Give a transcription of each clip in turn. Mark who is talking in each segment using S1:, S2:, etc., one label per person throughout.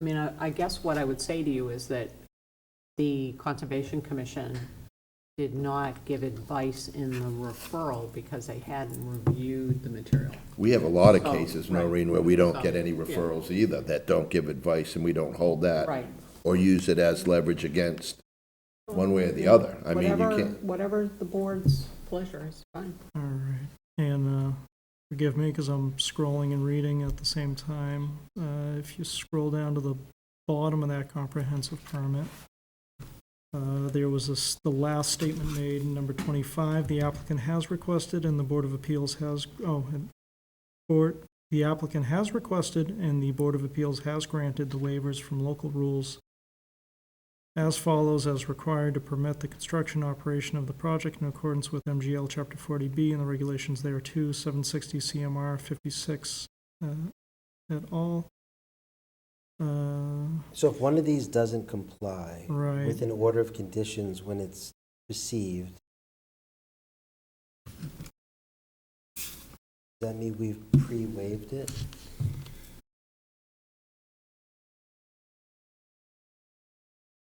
S1: I mean, I I guess what I would say to you is that the Conservation Commission did not give advice in the referral because they hadn't reviewed the material.
S2: We have a lot of
S1: Oh,
S2: cases,
S1: right. Oh,
S2: Noreen, where we don't get any
S1: Yeah.
S2: referrals either, that don't give advice, and we don't hold that.
S1: Right.
S2: Or use it as leverage against one way or the other. I mean, you
S1: Whatever-
S2: can't,
S1: Whatever the board's pleasure is, fine.
S3: All right, and uh, forgive me because I'm scrolling and reading at the same time. Uh, If you scroll down to the bottom of that comprehensive permit, uh, there was this, the last statement made in number 25, the applicant has requested and the Board of Appeals has, oh, and- or, the applicant has requested and the Board of Appeals has granted the waivers from local rules as follows, as required to permit the construction operation of the project in accordance with MGL Chapter 40B and the regulations thereto, 760 CMR 56 uh, et al. Uh,
S4: So if one of these doesn't comply
S3: Right.
S4: with an order of conditions when it's received, does that mean we've pre-waived it?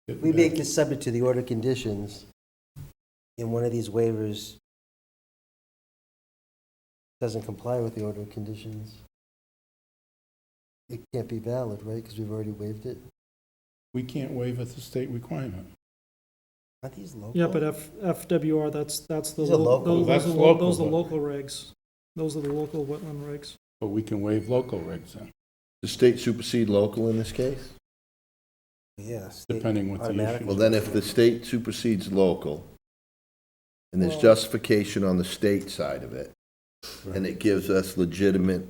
S4: If we make this subject to the order of conditions, and one of these waivers doesn't comply with the order of conditions, it can't be valid, right? Because we've already waived it.
S5: We can't waive at the state requirement.
S4: Are these local?
S3: Yeah, but F, FWR, that's, that's the,
S4: These are
S3: lo-
S4: local.
S3: those those
S5: That's
S3: are, lo-
S5: local,
S3: those are
S5: but-
S3: local regs. Those are the local wetland regs.
S5: But we can waive local regs then.
S2: the state supersede local in this case?
S4: Yes.
S5: Depending what the
S4: automatic-
S5: issue
S2: Well, then if the state supersedes local, and there's
S3: Well-
S2: justification on the state side of it, and it gives us legitimate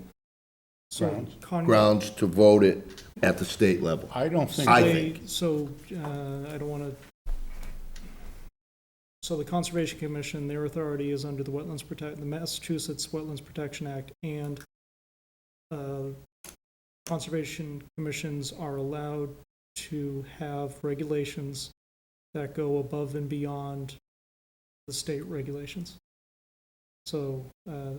S3: So
S5: Grounds.
S3: Con-
S2: grounds to vote it at the state level.
S5: I don't think,
S2: I
S3: they-
S2: think.
S3: So, uh, I don't wanna. So the Conservation Commission, their authority is under the Wetlands Protect, the Massachusetts Wetlands Protection Act and, uh, Conservation Commissions are allowed to have regulations that go above and beyond the state regulations. So, uh,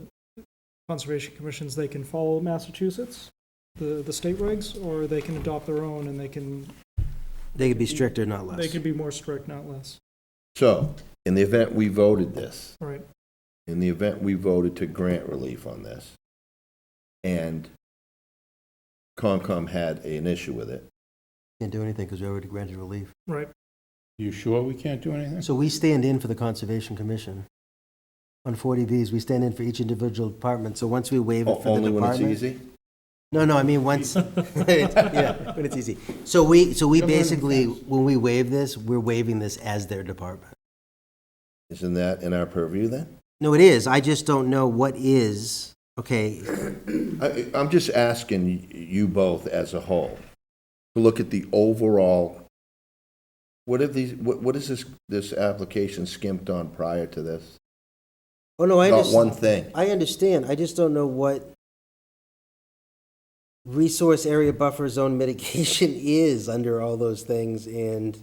S3: Conservation Commissions, they can follow Massachusetts, the, the state regs, or they can adopt their own and they can
S4: They could be stricter, not less.
S3: they could be more strict, not less.
S2: So, in the event we voted this,
S3: All right.
S2: in the event we voted to grant relief on this, and Concom had an issue with it,
S4: Can't do anything because we already granted relief.
S3: Right.
S5: you sure we can't do anything?
S4: So we stand in for the Conservation Commission. On 40Bs, we stand in for each individual department, so once we waive it
S2: o-
S4: for the
S2: Oh, only when it's
S4: department.
S2: easy?
S4: No, no, I mean, once, yeah, when it's easy. So we, so we
S5: You're learning
S4: basically,
S5: fast.
S4: when we waive this, we're waiving this as their department.
S2: Isn't that in our purview then?
S4: No, it is, I just don't know what is, okay,
S2: I, I'm just asking y- you both as a whole, to look at the overall, what are these, what, what is this, this application skimped on prior to this?
S4: oh, no, I
S2: Not
S4: understand.
S2: one thing.
S4: I understand, I just don't know what resource area buffer zone mitigation is under all those things, and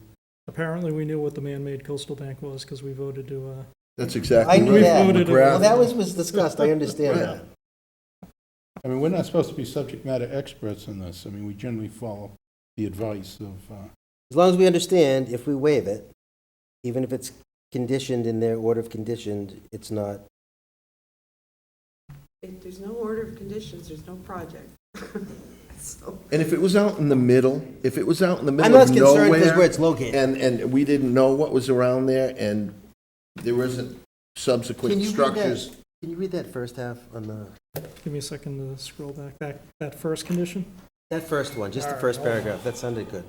S3: Apparently, we knew what the man-made coastal bank was because we voted to, uh,
S2: That's
S4: I
S2: exactly
S4: knew
S2: right.
S4: that.
S3: Voted it.
S2: McGrath-
S4: Well, that was, was discussed, I understand
S2: Right.
S4: that.
S5: I mean, we're not supposed to be subject matter experts in this. I mean, we generally follow the advice of, uh,
S4: As long as we understand, if we waive it, even if it's conditioned in their order of conditioned, it's not,
S6: If there's no order of conditions, there's no project. So,
S2: And if it was out in the middle, if it was out in the
S4: I'm
S2: middle
S4: not
S2: of
S4: concerned
S2: nowhere.
S4: because where it's located.
S2: And, and we didn't know what was around there, and there isn't subsequent structures.
S4: Can you read that first half on the,
S3: give me a second to scroll back, that, that first condition.
S4: that first one, just the first paragraph, that sounded good.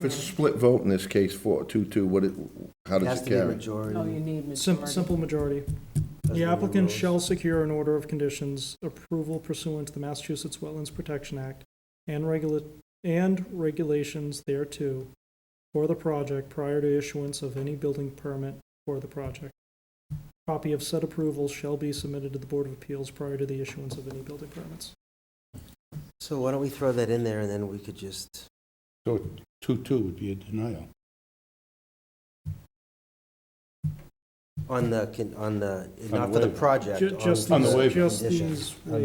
S2: If it's a split vote in this case, four, two, two, what, it- how
S4: It
S2: does
S4: has
S2: it
S4: to be
S2: carry?
S4: majority.
S1: No, you need
S3: Sim-
S1: majority.
S3: Simple majority.
S4: doesn't
S3: The
S4: mean
S3: applicant
S4: rules.
S3: shall secure an order of conditions approval pursuant to the Massachusetts Wetlands Protection Act and regula- and regulations thereto for the project prior to issuance of any building permit for the project. Copy of said approval shall be submitted to the Board of Appeals prior to the issuance of any building permits.
S4: So why don't we throw that in there and then we could just,
S5: so two-two would be a denial.
S4: on the, con- on the,
S5: On
S4: not for the
S5: waiver.
S4: project.
S3: Ju- Just
S5: On the
S3: these,
S5: waiver.
S3: just
S4: conditions.
S3: these
S4: On